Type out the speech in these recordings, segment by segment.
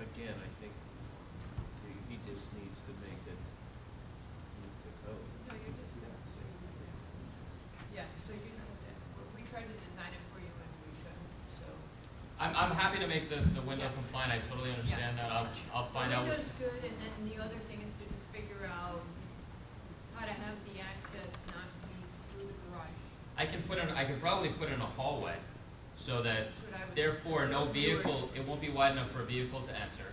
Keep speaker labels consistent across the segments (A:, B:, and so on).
A: again, I think he- he just needs to make it meet the code.
B: No, you're just, yeah, so you just, have to- we tried to design it for you and we shouldn't, so.
C: I'm, I'm happy to make the, the window
B: Yeah.
C: compliant, I totally understand that, I'll, I'll find out.
B: Window's good, and then the other thing is to just figure out how to have the access not be through the garage.
C: I can put in, I could probably put in a hallway, so that
B: That's what I was.
C: therefore no
B: if you were-
C: vehicle, it won't be wide enough for a vehicle to enter.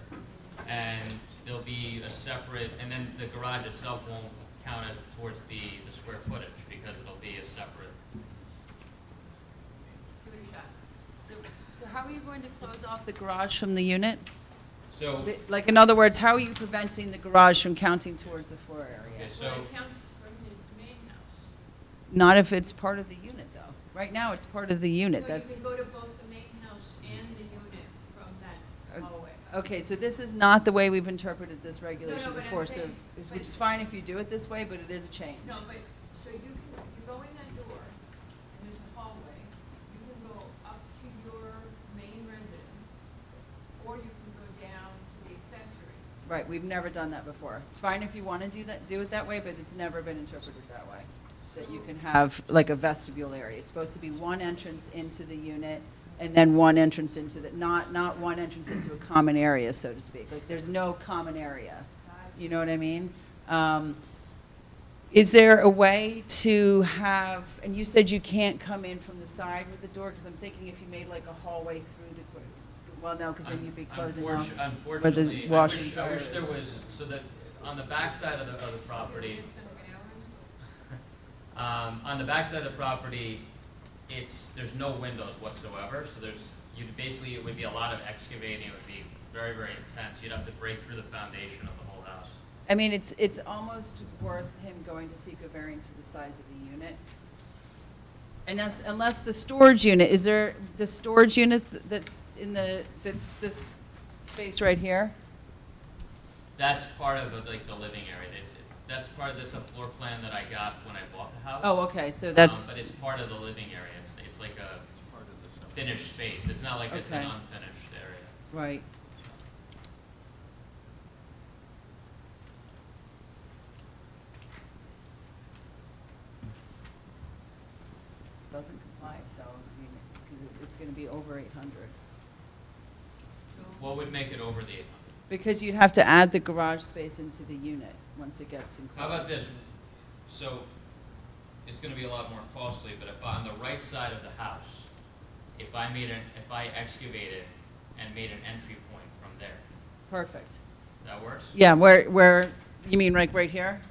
C: And there'll be a separate, and then the garage itself won't count as towards the, the square footage, because it'll be a separate.
B: Give it a shot.
D: So how are you going to close off the garage from the unit?
C: So,
D: Like, in other words, how are you preventing the garage from counting towards the floor
C: okay,
D: area?
C: so,
B: Well, it counts from his main house.
D: Not if it's part of the unit, though. Right now, it's part of the unit,
B: So
D: that's,
B: you can go to both the main house and the unit from that
D: Uh,
B: hallway.
D: okay, so this is not the way we've interpreted this
B: No,
D: regulation
B: no, but I'm
D: before, so,
B: saying-
D: which is fine if you do it this way, but it is a change.
B: No, but, so you can, you go in that door, and there's a hallway, you can go up to your main residence, or you can go down to the accessory.
D: Right, we've never done that before. It's fine if you want to do that, do it that way, but it's never been interpreted that way. That you can have like a vestibule area. It's supposed to be one entrance into the unit and then one entrance into the, not, not one entrance into a common area, so to speak. Like, there's no common area. You know what I mean? Um, Is there a way to have, and you said you can't come in from the side with the door, because I'm thinking if you made like a hallway through the, qu- well, no, because then you'd be closing off.
C: unfortunately, unfortunately, I
D: wash-
C: wish, I wish there was, so that, on the backside of the, of the property,
B: It's gonna be hours.
C: Um, on the backside of the property, it's, there's no windows whatsoever, so there's, you basically, it would be a lot of excavating, it would be very, very intense. You'd have to break through the foundation of the whole house.
D: I mean, it's, it's almost worth him going to seek a variance for the size of the unit. And that's, unless the storage unit, is there, the storage units that's in the, that's this space right here?
C: That's part of, uh, like, the living area, that's, that's part, that's a floor plan that I got when I bought the house.
D: Oh, okay, so
C: Um,
D: that's,
C: But it's part of the living area, it's, it's like a
A: It's part of the subdivision.
C: finished space, it's not like it's an
D: Okay.
C: unfinished area.
D: right. Doesn't comply, so, I mean, because it's going to be over 800.
B: So,
C: What would make it over the eight hundred?
D: Because you'd have to add the garage space into the unit once it gets enclosed.
C: How about this? So, it's gonna be a lot more costly, but if on the right side of the house, if I made an, if I excavated and made an entry point from there,
D: Perfect.
C: that works?
D: Yeah, where, where, you mean like right here?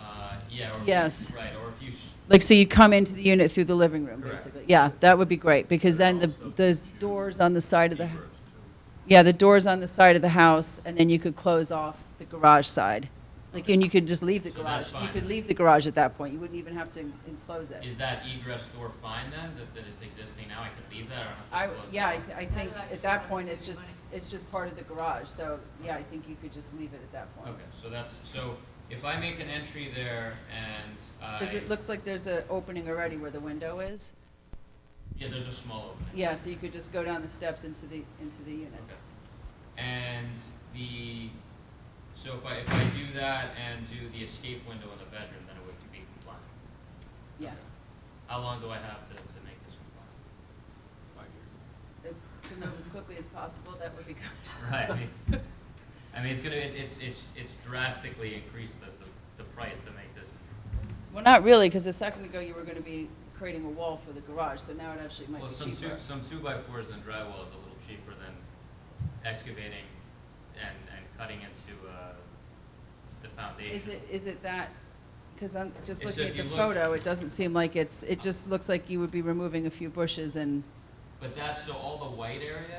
C: Uh, yeah, or. if you-
D: Yes.
C: Right, or if you, s-
D: Like, so you come into the unit through the living room,
C: Correct.
D: basically? Yeah, that would be great, because then the,
A: Also
D: the
A: to
D: doors on the side of the,
A: Hebrews, too.
D: yeah, the doors on the side of the house, and then you could close off the garage side. Like, and you could just leave the
C: So that's
D: garage. You
C: fine.
D: could leave the garage at that point, you wouldn't even have to enclose it.
C: is that egress door fine then, that, that it's existing now, I can leave that, I
D: I,
C: don't have to close it?
D: yeah, I, th- I think
B: That'll
D: at that
B: actually
D: point, it's
B: save you
D: just,
B: money.
D: it's just part of the garage, so, yeah, I think you could just leave it at that point.
C: Okay, so that's, so, if I make an entry there and I.
D: Because it looks like there's an opening already where the window is.
C: Yeah, there's a small opening.
D: Yeah, so you could just go down the steps into the, into the unit.
C: Okay. And the, so if I, if I do that and do the escape window in the bedroom, then it would be compliant.
D: Yes.
C: How long do I have to, to make this compliant?
D: If To move as quickly as possible, that would be good.
C: Right. I mean- I mean, it's gonna, it- it's, it's, it's drastically increased the, the, the price to make this.
D: Well, not really, because a second ago you were going to be creating a wall for the garage, so now it actually might
C: Well,
D: be
C: some two,
D: cheaper.
C: some two by fours and drywall is a little cheaper than excavating and, and cutting into, uh, the foundation.
D: Is it, is it that, because I'm just
C: It's
D: looking
C: if
D: at
C: you
D: the
C: look-
D: photo, it doesn't seem like it's, it just looks like you would be removing a few bushes and
C: But that's, so all the white area